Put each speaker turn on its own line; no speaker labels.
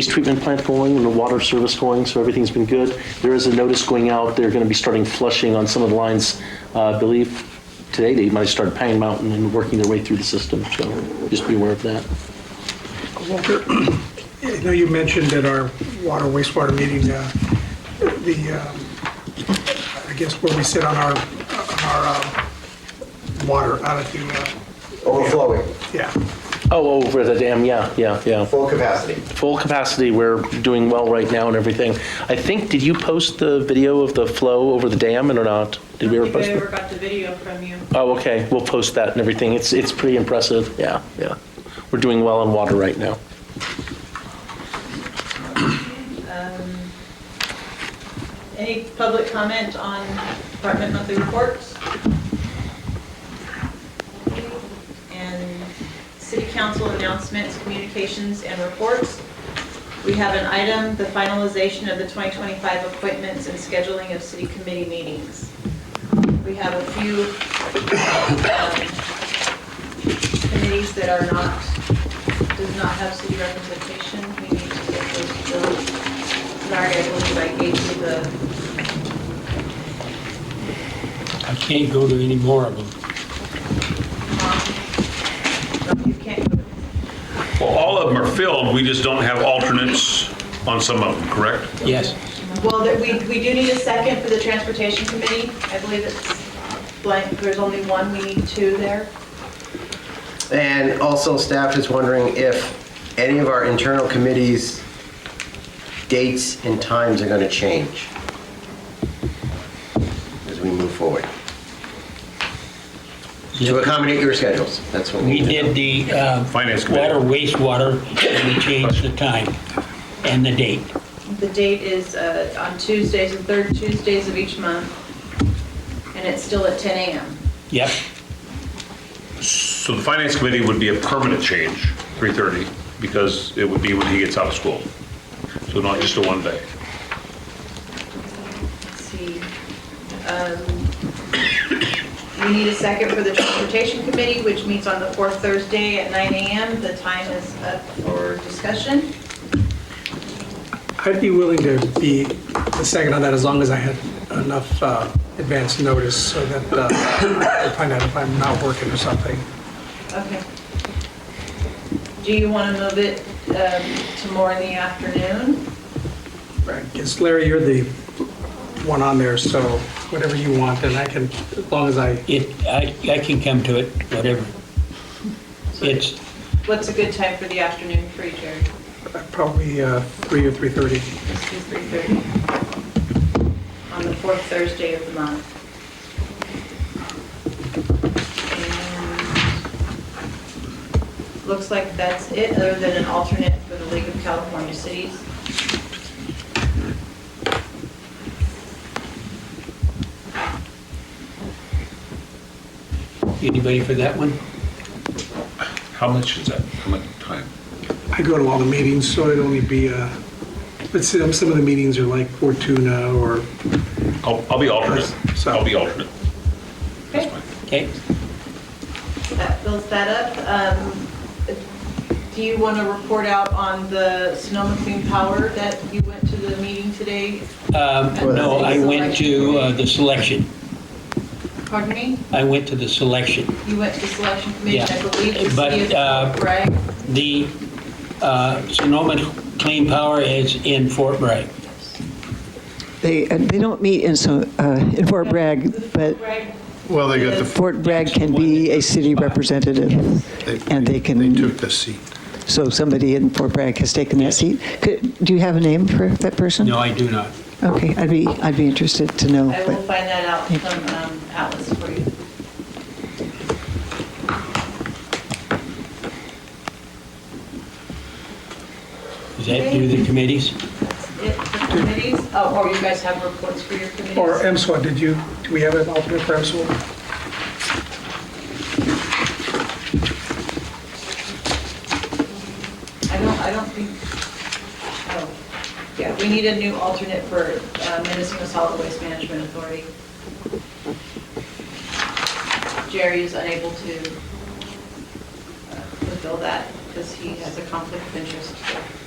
waste treatment plant going and the water service going, so everything's been good. There is a notice going out, they're going to be starting flushing on some of the lines, uh, I believe today they might start Pine Mountain and working their way through the system, so just be aware of that.
Walter, I know you mentioned at our water wastewater meeting, uh, the, um, I guess where we sit on our, on our uh, water out at the, uh,
Overflowing,
yeah,
Oh, over the dam, yeah, yeah, yeah.
full capacity.
Full capacity, we're doing well right now and everything. I think, did you post the video of the flow over the dam and or not? Did we ever post
I
it?
don't think I ever got the video from you.
Oh, okay, we'll post that and everything. It's, it's pretty impressive, yeah, yeah. We're doing well on water right now.
Um, Any public comment on department monthly reports? And city council announcements, communications, and reports. We have an item, the finalization of the 2025 appointments and scheduling of city committee meetings. We have a few um, committees that are not, does not have city representation. We need to get those filled. Sorry, I believe I gave you the,
I can't go to any more of them.
no, you can't.
Well, all of them are filled, we just don't have alternates on some of them, correct?
Yes.
Well, there- we, we do need a second for the transportation committee. I believe it's blank, there's only one, we need two there.
And also staff is wondering if any of our internal committees' dates and times are going to change as we move forward. To accommodate your schedules, that's what we
We
need to know.
did the uh,
Finance
water,
committee.
wastewater, and we changed the time and the date.
The date is uh, on Tuesdays and third Tuesdays of each month, and it's still at 10 AM.
Yep,
So the finance committee would be a permanent change, 3:30, because it would be when he gets out of school. So not just a one day.
Let's see. Um, We need a second for the transportation committee, which meets on the fourth Thursday at 9 AM. The time is up for discussion.
I'd be willing to be the second on that as long as I had enough uh, advance notice so that uh, I could find out if I'm not working or something.
Okay. Do you want to move it um, to more in the afternoon?
Right. Because Larry, you're the one on there, so whatever you want, then I can, as long as I,
it, I, I can come to it, whatever.
So
It's,
What's a good time for the afternoon for you, Jerry?
probably uh, 3 or 3:30.
Let's do 3:30. On the fourth Thursday of the month. And Looks like that's it, other than an alternate for the League of California Cities.
anybody for that one?
How much is that? How much time?
I go to all the meetings, so it'd only be, uh, but some, some of the meetings are like Fortuna or,
I'll, I'll be alternate.
So-
I'll be alternate.
Okay,
Okay,
that fills that up. Um, Do you want to report out on the Sonoma Clean Power that you went to the meeting today?
um, no, I went to uh, the selection,
Pardon me?
I went to the selection.
You went to the selection committee, I
Yeah.
believe, the
But,
city
uh,
of Bragg.
The uh, Sonoma Clean Power is in Fort Bragg.
They, uh, they don't meet in, so uh, in Fort Bragg, but
Bragg
Well, they got the,
Fort Bragg can be a city representative, and they
they
can,
took the seat.
so somebody in Fort Bragg has taken that seat. Could- Do you have a name for that person?
No, I do not.
Okay, I'd be, I'd be interested to know.
I will
but-
find that out from um, Atlas for you.
Does that do the committees?
It- The committees, oh, or you guys have reports for your committees?
or MSWA, did you, do we have an alternate for MSWA?
I don't, I don't think, oh, yeah, we need a new alternate for uh, Minnesota Solid Waste Management Authority. Jerry is unable to uh, fulfill that because he has a conflict of interest.